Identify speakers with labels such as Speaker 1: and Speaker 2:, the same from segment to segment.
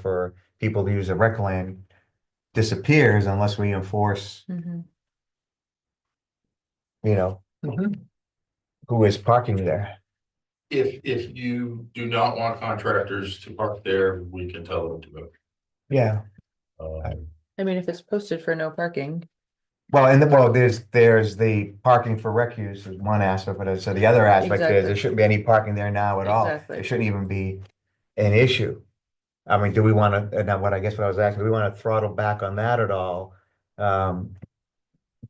Speaker 1: for people to use a rec land disappears unless we enforce,
Speaker 2: Mhm.
Speaker 1: you know,
Speaker 2: Mm-hmm.
Speaker 1: who is parking there.
Speaker 3: If, if you do not want contractors to park there, we can tell them to go.
Speaker 1: Yeah.
Speaker 3: Um,
Speaker 2: I mean, if it's posted for no parking,
Speaker 1: Well, and the, well, there's, there's the parking for rec use is one aspect, but uh, so the other aspect is there
Speaker 2: Exactly.
Speaker 1: shouldn't be any parking there now at all.
Speaker 2: Exactly.
Speaker 1: It shouldn't even be an issue. I mean, do we want to, and now what I guess what I was asking, do we want to throttle back on that at all? Um,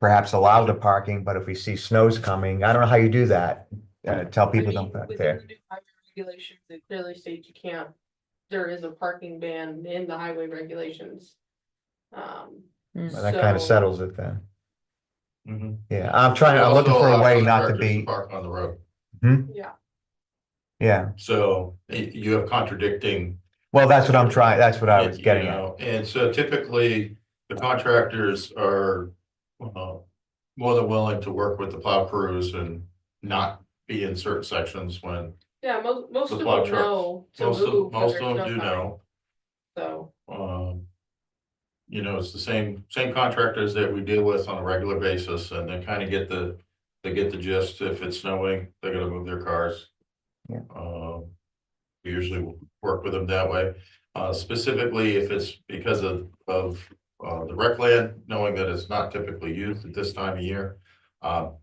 Speaker 1: perhaps allow the parking, but if we see snows coming, I don't know how you do that. Uh, tell people don't park there.
Speaker 4: Within the new highway Regulations, it clearly states you can't, there is a parking ban in the highway regulations. Um,
Speaker 2: Mm.
Speaker 1: Well, That kind of
Speaker 4: So-
Speaker 1: settles it then.
Speaker 3: mhm.
Speaker 1: Yeah, I'm trying, I'm looking
Speaker 3: Also
Speaker 1: for a
Speaker 3: allow
Speaker 1: way not to
Speaker 3: contractors
Speaker 1: be,
Speaker 3: Park on the road,
Speaker 4: yeah,
Speaker 1: yeah,
Speaker 3: so y- you have contradicting.
Speaker 1: well, that's what I'm trying, that's what I was
Speaker 3: you
Speaker 1: getting at.
Speaker 3: know, And so typically, the contractors are, uh, more than willing to work with the plow crews and not be in certain sections when,
Speaker 4: yeah, most, most
Speaker 3: The
Speaker 4: of them
Speaker 3: plow trucks.
Speaker 4: know to
Speaker 3: most
Speaker 4: move.
Speaker 3: of,
Speaker 4: when
Speaker 3: most
Speaker 4: there's
Speaker 3: of them
Speaker 4: no
Speaker 3: do
Speaker 4: sign,
Speaker 3: know.
Speaker 4: So,
Speaker 3: Um, you know, it's the same, same contractors that we deal with on a regular basis and they kind of get the, they get the gist. If it's snowing, they're gonna move their cars.
Speaker 1: Yeah.
Speaker 3: Um, we usually work with them that way. Uh, specifically if it's because of, of, uh, the rec land, knowing that it's not typically used at this time of year. Um,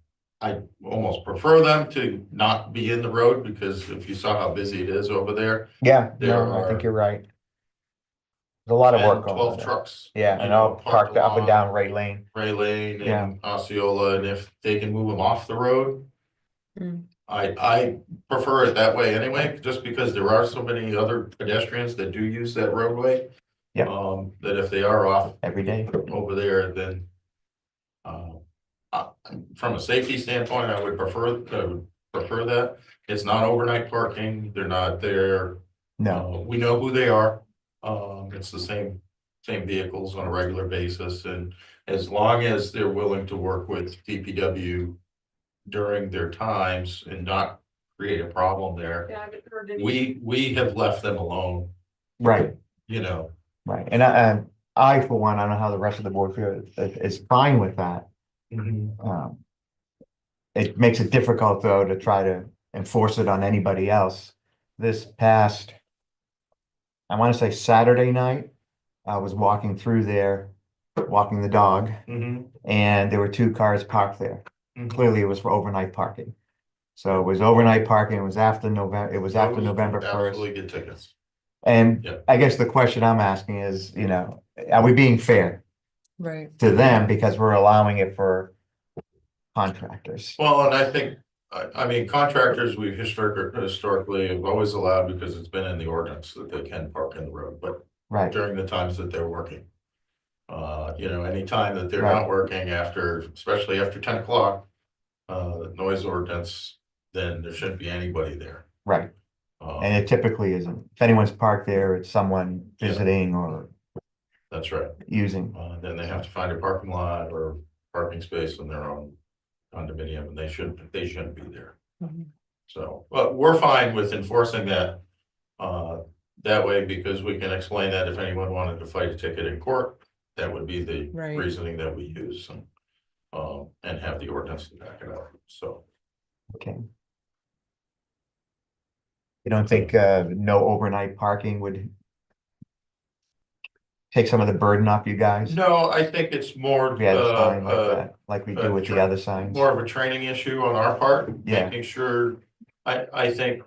Speaker 3: I almost prefer them to not be in the road because if you saw how busy it is over there.
Speaker 1: Yeah,
Speaker 3: There
Speaker 1: no, I think
Speaker 3: are-
Speaker 1: you're right. There's a lot of work
Speaker 3: and
Speaker 1: going on
Speaker 3: Twelve
Speaker 1: there.
Speaker 3: trucks.
Speaker 1: Yeah,
Speaker 3: you
Speaker 1: and
Speaker 3: know,
Speaker 1: all parked up and
Speaker 3: along
Speaker 1: down Ray Lane.
Speaker 3: Ray Lane
Speaker 1: Yeah.
Speaker 3: and Osceola, and if they can move them off the road.
Speaker 2: Mm.
Speaker 3: I, I prefer it that way anyway, just because there are so many other pedestrians that do use that roadway.
Speaker 1: Yeah.
Speaker 3: Um, that if they are off
Speaker 1: Every day.
Speaker 3: over there, then. Uh, I- from a safety standpoint, I would prefer, I would prefer that. It's not overnight parking, they're not there.
Speaker 1: No,
Speaker 3: Uh, we know who they are. Um, it's the same, same vehicles on a regular basis and as long as they're willing to work with DPW during their times and not create a problem there,
Speaker 4: yeah, I haven't heard any.
Speaker 3: we, we have left them alone,
Speaker 1: right,
Speaker 3: you know.
Speaker 1: right. And I, um, I, for one, I don't know how the rest of the board feels, is, is fine with that. Um, it makes it difficult though to try to enforce it on anybody else. This past, I want to say Saturday night, I was walking through there, walking the dog,
Speaker 3: Mhm.
Speaker 1: and there were two cars parked there.
Speaker 3: Mhm.
Speaker 1: Clearly, it was for overnight parking. So it was overnight parking. It was after November, it was after
Speaker 3: Those
Speaker 1: November first.
Speaker 3: Absolutely get tickets.
Speaker 1: And
Speaker 3: Yeah.
Speaker 1: I guess the question I'm asking is, you know, are we being fair
Speaker 2: Right.
Speaker 1: to them because we're allowing it for contractors?
Speaker 3: Well, and I think, I, I mean, contractors, we've historically, historically have always allowed because it's been in the ordinance that they can park in the road, but
Speaker 1: Right.
Speaker 3: during the times that they're working. Uh, you know, any time that they're
Speaker 1: Right.
Speaker 3: not working after, especially after ten o'clock, uh, the noise ordinance, then there shouldn't be anybody there.
Speaker 1: Right,
Speaker 3: Uh,
Speaker 1: and it typically isn't. If anyone's parked there, it's someone
Speaker 3: Yeah.
Speaker 1: visiting or
Speaker 3: that's right.
Speaker 1: using.
Speaker 3: Uh, then they have to find a parking lot or parking space in their own condominium, and they shouldn't, they shouldn't be there.
Speaker 2: Mhm.
Speaker 3: So, but we're fine with enforcing that, uh, that way because we can explain that if anyone wanted to fight a ticket in court, that would be the
Speaker 2: Right.
Speaker 3: reasoning that we use and, um, and have the ordinance to back it up, so.
Speaker 1: Okay. You don't think, uh, no overnight parking would take some of the burden off you guys?
Speaker 3: No, I think it's more,
Speaker 1: If you had a
Speaker 3: uh,
Speaker 1: sign like
Speaker 3: uh,
Speaker 1: that, like we
Speaker 3: uh,
Speaker 1: do with the
Speaker 3: sure.
Speaker 1: other signs?
Speaker 3: more of a training issue on our part.
Speaker 1: Yeah.
Speaker 3: Making sure, I, I think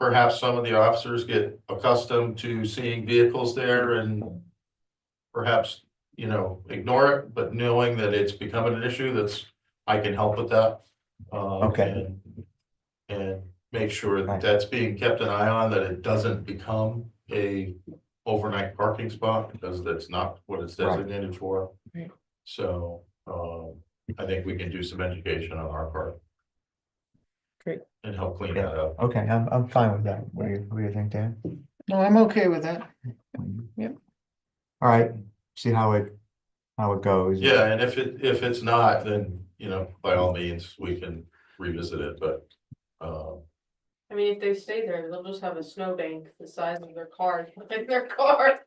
Speaker 3: perhaps some of the officers get accustomed to seeing vehicles there and perhaps, you know, ignore it, but knowing that it's becoming an issue that's, I can help with that. Um,
Speaker 1: Okay.
Speaker 3: and- And make sure
Speaker 1: Right.
Speaker 3: that that's being kept an eye on, that it doesn't become a overnight parking spot because that's not what it's
Speaker 1: Right.
Speaker 3: designated for.
Speaker 2: Right.
Speaker 3: So, um, I think we can do some education on our part.
Speaker 2: Great.
Speaker 3: And help clean that up.
Speaker 1: Okay, I'm, I'm fine with that. What do you, what do you think, Dan?
Speaker 2: No, I'm okay with that. Yep.
Speaker 1: All right, see how it, how it goes.
Speaker 3: Yeah, and if it, if it's not, then, you know, by all means, we can revisit it, but, uh,
Speaker 4: I mean, if they stay there, they'll just have a snowbank the size of their car, in their car.